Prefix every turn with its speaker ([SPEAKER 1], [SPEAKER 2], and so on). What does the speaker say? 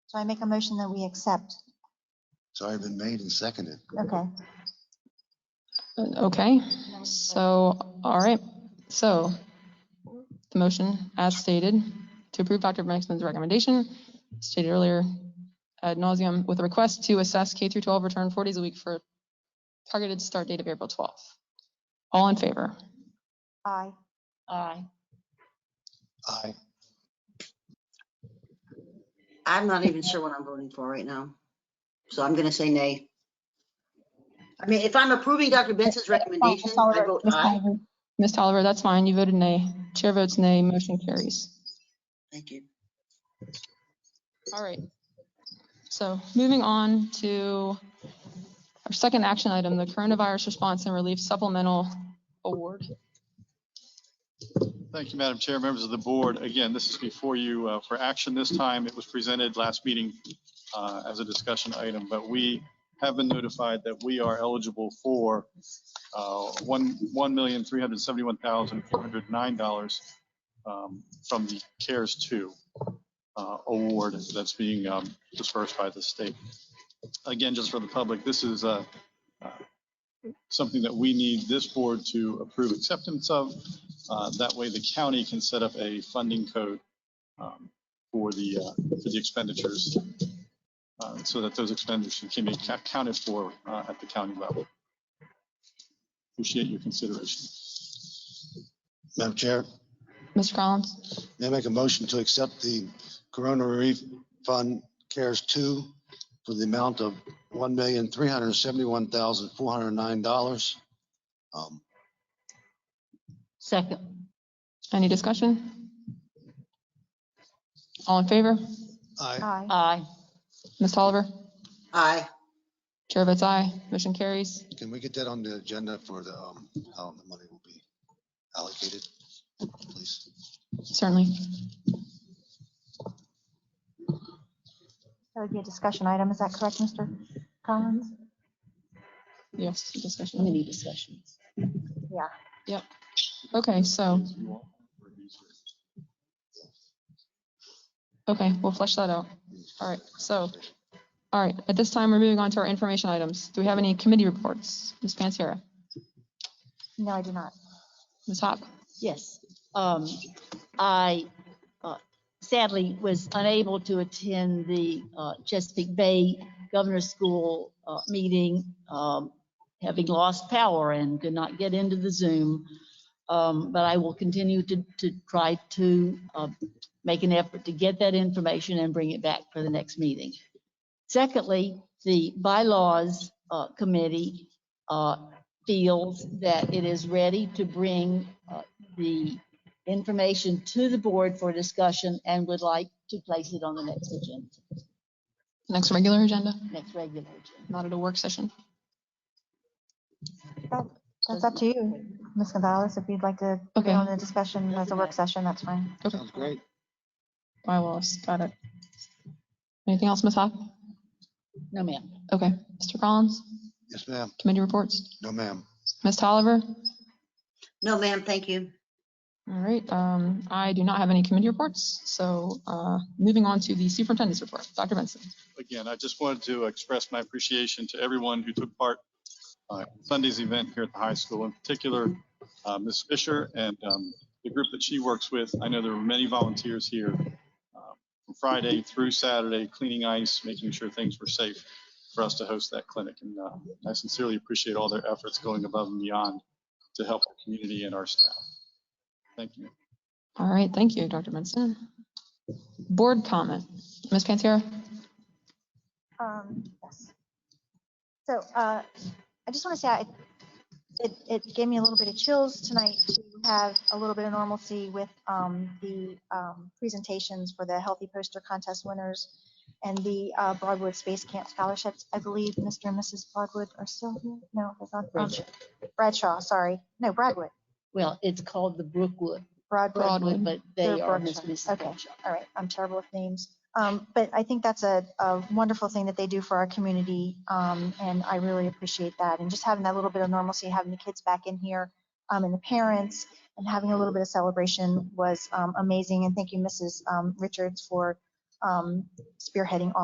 [SPEAKER 1] So I make a motion that we accept.
[SPEAKER 2] So I've been made and seconded.
[SPEAKER 1] Okay.
[SPEAKER 3] Okay, so, all right, so the motion as stated to approve Dr. Maxman's recommendation stated earlier ad nauseum with a request to assess K through 12 return four days a week for targeted start date of April 12th. All in favor?
[SPEAKER 1] Aye.
[SPEAKER 3] Aye.
[SPEAKER 2] Aye.
[SPEAKER 4] I'm not even sure what I'm voting for right now. So I'm gonna say nay. I mean, if I'm approving Dr. Benson's
[SPEAKER 1] Oh,
[SPEAKER 4] recommendation, I vote aye.
[SPEAKER 3] Ms. Tolliver, that's fine. You voted nay. Chair votes nay. Motion carries.
[SPEAKER 4] Thank you.
[SPEAKER 3] All right. So moving on to our second action item, the coronavirus response and relief supplemental award.
[SPEAKER 5] Thank you, Madam Chair, members of the board. Again, this is before you uh, for action this time. It was presented last meeting uh, as a discussion item, but we have been notified that we are eligible for uh, one $1,371,409 um, from the CARES 2 uh, award that's being um, dispersed by the state. Again, just for the public, this is uh, uh, something that we need this board to approve acceptance of. Uh, That way, the county can set up a funding code um, for the, uh, for the expenditures, uh, so that those expenditures can be ca- accounted for uh, at the county level. Appreciate your consideration.
[SPEAKER 2] Madam Chair,
[SPEAKER 3] Mr. Collins?
[SPEAKER 2] may I make a motion to accept the Corona Relief Fund CARES 2 for the amount of $1,371,409. Um,
[SPEAKER 3] Second. Any discussion? All in favor?
[SPEAKER 2] Aye.
[SPEAKER 1] Aye.
[SPEAKER 3] Aye. Ms. Tolliver?
[SPEAKER 4] Aye.
[SPEAKER 3] Chair votes aye. Motion carries.
[SPEAKER 2] Can we get that on the agenda for the, um, how the money will be allocated, please?
[SPEAKER 3] Certainly.
[SPEAKER 1] That would be a discussion item. Is that correct, Mr. Collins?
[SPEAKER 3] Yes, discussion.
[SPEAKER 4] Many discussions.
[SPEAKER 1] Yeah.
[SPEAKER 3] Okay, so, okay, we'll flesh that out. All right, so, all right, at this time, we're moving on to our information items. Do we have any committee reports? Ms. Panzera?
[SPEAKER 1] No, I do not.
[SPEAKER 3] Ms. Hawk?
[SPEAKER 6] Yes, um, I uh, sadly was unable to attend the uh, Chesapeake Bay Governor's School uh, meeting, um, having lost power and could not get into the Zoom. Um, But I will continue to, to try to uh, make an effort to get that information and bring it back for the next meeting. Secondly, the bylaws uh, committee uh, feels that it is ready to bring uh, the information to the board for discussion and would like to place it on the next agenda,
[SPEAKER 3] Next regular agenda,
[SPEAKER 6] next regular agenda.
[SPEAKER 3] not at a work session.
[SPEAKER 1] That's up to you, Ms. Gonzalez. If you'd like to put it
[SPEAKER 3] Okay.
[SPEAKER 1] on the discussion as a work session, that's fine.
[SPEAKER 2] Sounds great.
[SPEAKER 3] By Wallace, got it. Anything else, Ms. Hawk?
[SPEAKER 6] No, ma'am.
[SPEAKER 3] Okay, Mr. Collins,
[SPEAKER 2] Yes, ma'am.
[SPEAKER 3] committee reports.
[SPEAKER 2] No, ma'am.
[SPEAKER 3] Ms. Tolliver?
[SPEAKER 4] No, ma'am, thank you.
[SPEAKER 3] All right, um, I do not have any committee reports, so, uh, moving on to the superintendent's report. Dr. Benson?
[SPEAKER 5] again, I just wanted to express my appreciation to everyone who took part uh, in Sunday's event here at the high school, in particular, uh, Ms. Fisher and um, the group that she works with. I know there were many volunteers here uh, from Friday through Saturday, cleaning ice, making sure things were safe for us to host that clinic. And uh, I sincerely appreciate all their efforts going above and beyond to help the community and our staff. Thank you.
[SPEAKER 3] All right, thank you, Dr. Benson. Board comment, Ms. Panzera?
[SPEAKER 1] Um, yes. So, uh, I just want to say, I, it, it gave me a little bit of chills tonight to have a little bit of normalcy with, um, the, um, presentations for the Healthy Poster Contest winners and the, uh, Broadwood Space Camp scholarships. I believe Mr. and Mrs. Broadwood are still here. No, it's not Broadwood. Bradshaw, sorry. No, Broadwood,
[SPEAKER 6] Well, it's called the Brookwood,
[SPEAKER 1] Broadwood.
[SPEAKER 3] Broadwood.
[SPEAKER 6] Broadwood, but they
[SPEAKER 1] They're
[SPEAKER 6] are Miss
[SPEAKER 1] Broadwood,
[SPEAKER 6] Mrs.
[SPEAKER 1] okay.
[SPEAKER 6] Bradshaw.
[SPEAKER 1] all right, I'm terrible with names. Um, but I think that's a, a wonderful thing that they do for our community. Um, and I really appreciate that. And just having that little bit of normalcy, having the kids back in here, um, and the parents and having a little bit of celebration was, um, amazing. And thank you, Mrs. um, Richards for, um, spearheading all.